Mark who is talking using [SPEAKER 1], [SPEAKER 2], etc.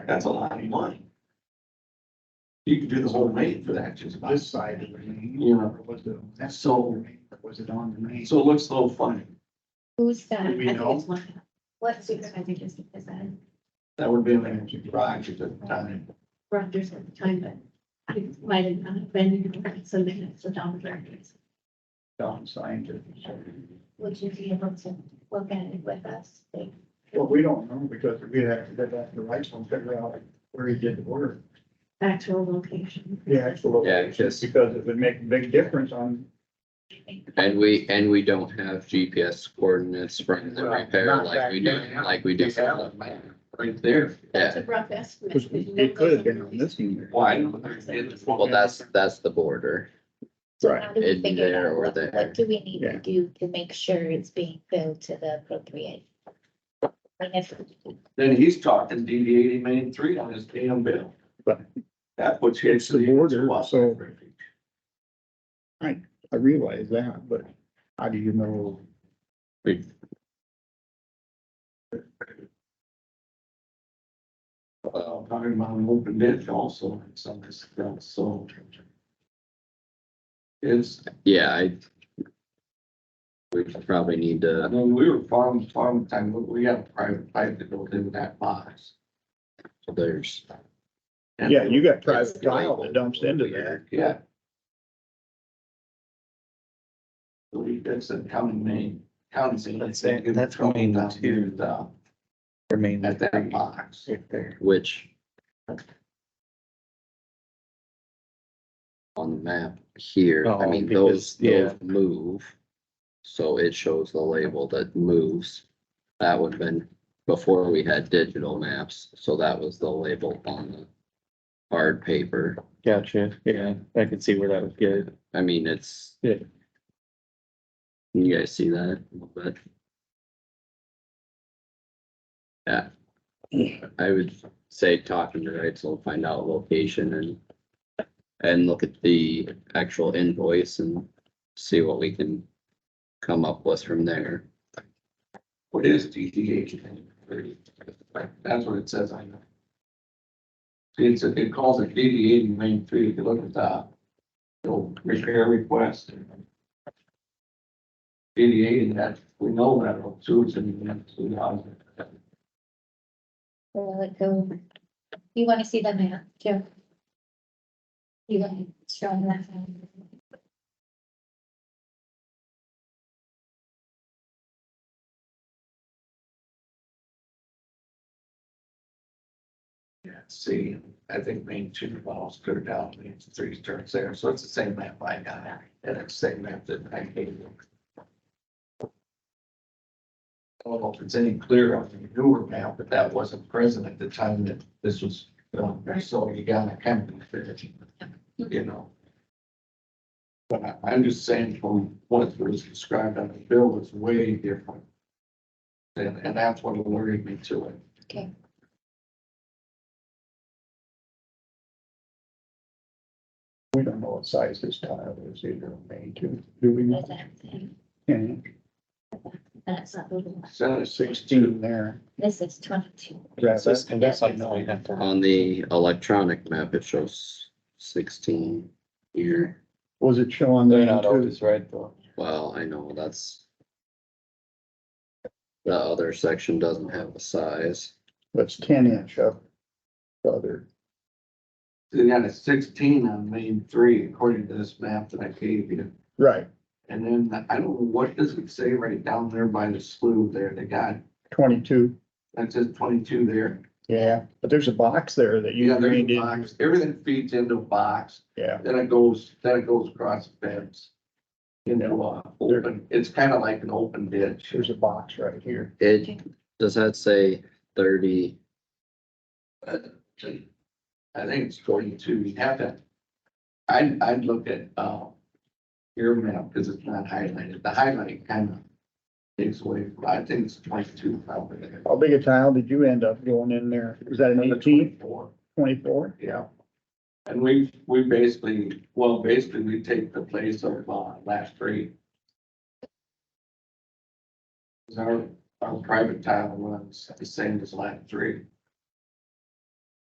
[SPEAKER 1] That's a lot of money. You could do the whole rate for that, just about.
[SPEAKER 2] This side of the main.
[SPEAKER 1] Yeah.
[SPEAKER 2] or Was it, on that side of
[SPEAKER 1] So,
[SPEAKER 2] the main? was it on the main?
[SPEAKER 1] so it looks a little funny.
[SPEAKER 3] Who's
[SPEAKER 2] Do
[SPEAKER 3] that?
[SPEAKER 2] we know?
[SPEAKER 3] What supervisor just is that?
[SPEAKER 1] That would be an empty garage at the time.
[SPEAKER 3] Rogers at the time, but I might have not been, so then it's the Don Rogers.
[SPEAKER 2] Down scientific.
[SPEAKER 3] Would you be able to look at it with us?
[SPEAKER 2] Well, we don't know because we have to get back to Rice and figure out where he did the work.
[SPEAKER 3] Actual location.
[SPEAKER 2] The actual.
[SPEAKER 4] Yeah,
[SPEAKER 2] location,
[SPEAKER 4] because-
[SPEAKER 2] Because it would make a big difference on.
[SPEAKER 4] And we, and we don't have GPS coordinates from the
[SPEAKER 2] Well,
[SPEAKER 4] repair
[SPEAKER 2] not
[SPEAKER 4] like we
[SPEAKER 2] back
[SPEAKER 4] do,
[SPEAKER 2] then.
[SPEAKER 4] like we do.
[SPEAKER 2] We have
[SPEAKER 4] for the- Right there,
[SPEAKER 3] That's
[SPEAKER 4] yeah,
[SPEAKER 3] a rough estimate.
[SPEAKER 2] meter.
[SPEAKER 1] Why? It's-
[SPEAKER 4] well, that's, that's the border.
[SPEAKER 3] So
[SPEAKER 2] Right.
[SPEAKER 3] how do we
[SPEAKER 4] in
[SPEAKER 3] figure it
[SPEAKER 4] there
[SPEAKER 3] out?
[SPEAKER 4] or
[SPEAKER 3] What-
[SPEAKER 4] there.
[SPEAKER 3] What do we need
[SPEAKER 2] Yeah.
[SPEAKER 3] to do to make sure it's being filled to the appropriate? I guess,
[SPEAKER 1] Then he's talking DD eighty main three on his damn bill.
[SPEAKER 2] But-
[SPEAKER 1] That puts you
[SPEAKER 2] It's
[SPEAKER 1] into
[SPEAKER 2] the
[SPEAKER 1] the.
[SPEAKER 2] border,
[SPEAKER 1] Well,
[SPEAKER 2] so- I realize that, but how do you know?
[SPEAKER 4] We-
[SPEAKER 1] Well, talking about an open ditch also, and some of this stuff, so. It's,
[SPEAKER 4] Yeah, I. We probably need
[SPEAKER 1] I
[SPEAKER 4] to,
[SPEAKER 1] mean, we were farm, farm time, but we got a private pipe that goes in that box.
[SPEAKER 4] there's.
[SPEAKER 1] And-
[SPEAKER 2] Yeah, you got
[SPEAKER 4] private
[SPEAKER 2] private
[SPEAKER 4] tile
[SPEAKER 2] tile that
[SPEAKER 4] that
[SPEAKER 2] dumps into there.
[SPEAKER 1] Yeah. Believe that's the county name, county. thing.
[SPEAKER 5] That's it, that's going
[SPEAKER 1] Down here, uh,
[SPEAKER 5] remain
[SPEAKER 1] At that box.
[SPEAKER 5] right there.
[SPEAKER 4] Which. On the map here, I
[SPEAKER 5] Oh,
[SPEAKER 4] mean, those, those
[SPEAKER 5] because- yeah.
[SPEAKER 4] move. So it shows the label that moves. That would have been before we had digital maps, so that was the label on the hard paper.
[SPEAKER 5] Gotcha, yeah, I can see where that would get.
[SPEAKER 4] I mean, it's.
[SPEAKER 5] Yeah.
[SPEAKER 4] You guys see that a little bit? Yeah. I would say talking to Reitzel, find out location and. And look at the actual invoice and see what we can come up with from there.
[SPEAKER 1] What is DTH? That's what it says, I know. See, It's, it calls it DDA in main three, if you look at the, the repair request. DDA, and that, we know that, oh, two, it's in, it's in, uh,
[SPEAKER 3] we'll let go. You want to see the map, Joe? You want to show them that?
[SPEAKER 1] Yeah, see, I think main two bottles put it out, main three turns there, so it's the same map I got, and it's the same map that I gave them. I don't know if it's any clearer on the newer map, but that wasn't present at the time that this was, done, so you gotta kind of fit it, you know. But I, I'm just saying from what was described on the bill was way different. And, and that's what alerted me to it.
[SPEAKER 2] We don't know what size this tile is either, main two, do we know?
[SPEAKER 3] That's everything.
[SPEAKER 2] Yeah,
[SPEAKER 3] That's not moving.
[SPEAKER 1] Seven
[SPEAKER 2] sixteen there.
[SPEAKER 3] This is twenty-two.
[SPEAKER 2] That's
[SPEAKER 5] That's, and that's like,
[SPEAKER 3] like,
[SPEAKER 5] no,
[SPEAKER 3] no,
[SPEAKER 5] you have to.
[SPEAKER 4] On the electronic map, it shows sixteen here.
[SPEAKER 2] Was it showing
[SPEAKER 5] They're
[SPEAKER 2] there
[SPEAKER 5] not
[SPEAKER 2] too?
[SPEAKER 5] always right though.
[SPEAKER 4] Well, I know that's. The other section doesn't have a size.
[SPEAKER 2] That's ten inch up. Other,
[SPEAKER 1] They got a sixteen on main three according to this map that I gave you.
[SPEAKER 2] right,
[SPEAKER 1] And then I don't know, what does it say right down there by the slough there? They got,
[SPEAKER 2] twenty-two,
[SPEAKER 1] that says twenty-two there.
[SPEAKER 2] yeah, but there's a box there that you
[SPEAKER 1] Yeah, there's
[SPEAKER 2] drained
[SPEAKER 1] a
[SPEAKER 2] in,
[SPEAKER 1] box. Everything feeds into a box.
[SPEAKER 2] yeah.
[SPEAKER 1] Then it goes, then it goes across the fence. Into a open, it's kind of like an open ditch.
[SPEAKER 2] There's a box right here.
[SPEAKER 4] It, does that say thirty?
[SPEAKER 1] I think it's twenty-two. You'd have to. I'd, I'd look at, uh, your map because it's not highlighted. The highlight kind of takes away, from- I think it's twenty-two probably.
[SPEAKER 2] How big a tile did you end up going in there? Was that an
[SPEAKER 1] Another
[SPEAKER 2] eighteen,
[SPEAKER 1] 24,
[SPEAKER 2] twenty-four?
[SPEAKER 1] Yeah. And we, we basically, well, basically we take the place of, uh, last three. 'Cause Our, our private tile runs the same as last three.